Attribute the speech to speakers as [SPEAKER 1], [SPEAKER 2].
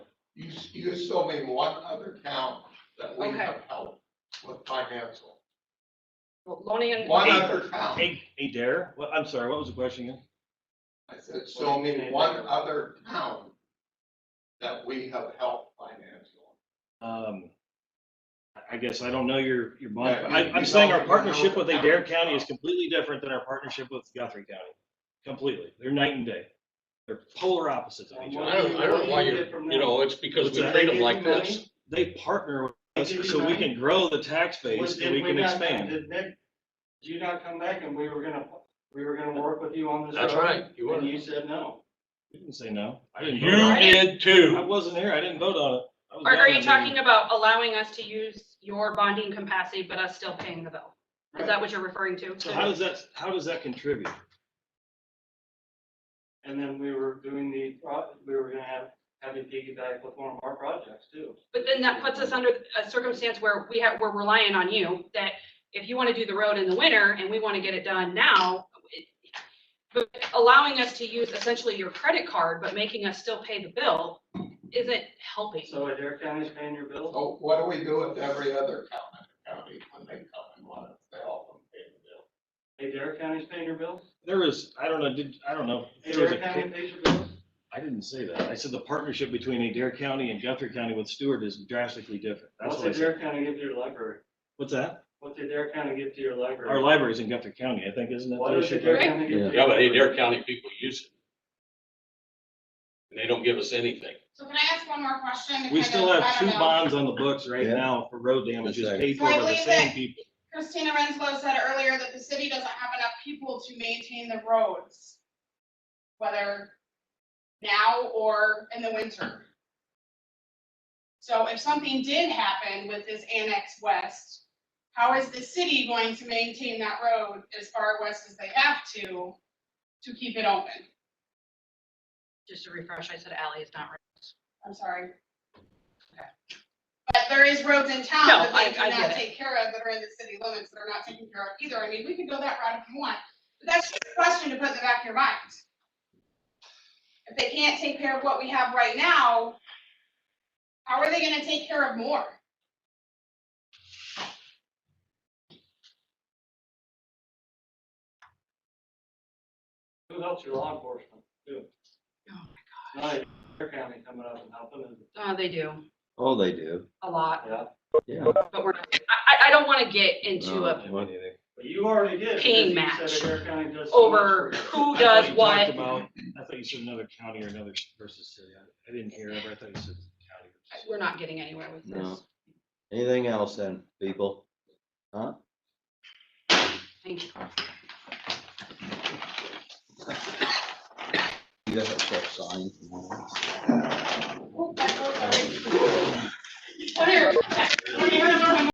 [SPEAKER 1] you show me one other town that we
[SPEAKER 2] Okay.
[SPEAKER 1] have helped with financial.
[SPEAKER 2] Loaning and.
[SPEAKER 1] One other town.
[SPEAKER 3] Hey, hey Dare, well, I'm sorry, what was the question again?
[SPEAKER 1] I said, show me one other town that we have helped financial.
[SPEAKER 3] Um, I- I guess I don't know your, your bond,
[SPEAKER 1] Yeah, you-
[SPEAKER 3] I,
[SPEAKER 1] you
[SPEAKER 3] I'm saying our
[SPEAKER 1] don't- you don't know
[SPEAKER 3] partnership with
[SPEAKER 1] the
[SPEAKER 3] Adair
[SPEAKER 1] counties.
[SPEAKER 3] County is completely different than our partnership with Guthrie County. Completely, they're night and day. They're polar opposites of each
[SPEAKER 4] I
[SPEAKER 3] other.
[SPEAKER 4] don't, I don't know why you're, you know, it's because
[SPEAKER 3] What's
[SPEAKER 4] we
[SPEAKER 3] that?
[SPEAKER 4] treat them like this.
[SPEAKER 3] They partner with
[SPEAKER 5] Did you
[SPEAKER 3] us so we
[SPEAKER 5] remind-
[SPEAKER 3] can grow the tax base
[SPEAKER 5] Did
[SPEAKER 3] and we can
[SPEAKER 5] not-
[SPEAKER 3] expand.
[SPEAKER 5] Did Nick, did you not come back and we were gonna, we were gonna work with you on this?
[SPEAKER 4] That's
[SPEAKER 5] road?
[SPEAKER 4] right. You
[SPEAKER 5] And
[SPEAKER 4] were.
[SPEAKER 5] you said no.
[SPEAKER 3] You didn't say no. I didn't vote
[SPEAKER 4] You
[SPEAKER 3] on it.
[SPEAKER 4] did
[SPEAKER 3] I
[SPEAKER 4] too.
[SPEAKER 3] wasn't here, I didn't vote on it. I was
[SPEAKER 2] Are,
[SPEAKER 3] down
[SPEAKER 2] are
[SPEAKER 3] in
[SPEAKER 2] you
[SPEAKER 3] the
[SPEAKER 2] talking
[SPEAKER 3] meeting.
[SPEAKER 2] about allowing us to use your bonding capacity, but us still paying the bill? Is that what you're referring to?
[SPEAKER 3] So how does that, how does that contribute?
[SPEAKER 5] And then we were doing the, pro- we were gonna have, have you piggyback with one of our projects too.
[SPEAKER 2] But then that puts us under a circumstance where we have, we're relying on you, that if you want to do the road in the winter and we want to get it done now, it- but allowing us to use essentially your credit card, but making us still pay the bill, isn't helping.
[SPEAKER 5] So Adair County's paying your bill?
[SPEAKER 1] So what do we do with every other county, county when they come and want us to help them pay the bill?
[SPEAKER 5] Adair County's paying your bills?
[SPEAKER 3] There was, I don't know, did, I don't know. There was
[SPEAKER 5] Adair
[SPEAKER 3] a-
[SPEAKER 5] County pays your bills?
[SPEAKER 3] I didn't say that. I said the partnership between Adair County and Guthrie County with Stewart is drastically different. That's
[SPEAKER 5] What's
[SPEAKER 3] what I said.
[SPEAKER 5] Adair County give to your library?
[SPEAKER 3] What's that?
[SPEAKER 5] What's Adair County give to your
[SPEAKER 3] Our
[SPEAKER 5] library?
[SPEAKER 3] library's in Guthrie County, I think, isn't it?
[SPEAKER 5] What does Adair
[SPEAKER 2] Right.
[SPEAKER 5] County give to your
[SPEAKER 4] Yeah, but
[SPEAKER 5] library?
[SPEAKER 4] Adair County people use it. And they don't give us anything.
[SPEAKER 6] So can I ask one more question? to
[SPEAKER 3] We
[SPEAKER 6] kind
[SPEAKER 3] still
[SPEAKER 6] of-
[SPEAKER 3] have
[SPEAKER 6] I
[SPEAKER 3] two
[SPEAKER 6] don't know.
[SPEAKER 3] bonds on the books right
[SPEAKER 7] Yeah.
[SPEAKER 3] now for road damages
[SPEAKER 7] That's right.
[SPEAKER 3] paid for by
[SPEAKER 6] So I
[SPEAKER 3] the
[SPEAKER 6] believe
[SPEAKER 3] same
[SPEAKER 6] that-
[SPEAKER 3] people.
[SPEAKER 6] Christina Renslow said earlier that the city doesn't have enough people to maintain the roads, whether now or in the winter. So if something did happen with this annex west, how is the city going to maintain that road as far west as they have to, to keep it open?
[SPEAKER 2] Just to refresh, I said alley is not. right.
[SPEAKER 6] I'm sorry. But there is roads in town that
[SPEAKER 2] No, I-
[SPEAKER 6] they do
[SPEAKER 2] I get
[SPEAKER 6] not
[SPEAKER 2] it.
[SPEAKER 6] take care of, that are in the city limits, that are not taken care of either. I mean, we could go that route if you want, but that's just a question to put in the back of your mind. If they can't take care of what we have right now, how are they gonna take care of more?
[SPEAKER 5] Who helps your law enforcement too? Not Adair County coming up and helping us.
[SPEAKER 2] Uh, they do
[SPEAKER 7] Oh, they do,
[SPEAKER 2] a lot,
[SPEAKER 5] Yeah,
[SPEAKER 7] yeah.
[SPEAKER 2] but we're not, I, I- I don't want to get into a
[SPEAKER 7] No,
[SPEAKER 5] but you already did. because
[SPEAKER 2] Paying
[SPEAKER 5] you said
[SPEAKER 2] match
[SPEAKER 5] Adair County does so much
[SPEAKER 2] over
[SPEAKER 5] for you.
[SPEAKER 2] who
[SPEAKER 3] I
[SPEAKER 2] does
[SPEAKER 3] thought you
[SPEAKER 2] what.
[SPEAKER 3] talked about- I thought you said another county or another versus city. I- I didn't hear it, but I thought you said county. versus city.
[SPEAKER 2] We're not getting anywhere with
[SPEAKER 7] No.
[SPEAKER 2] this.
[SPEAKER 7] Anything else then, people? Huh?
[SPEAKER 2] Thank you.
[SPEAKER 7] You guys have that sign.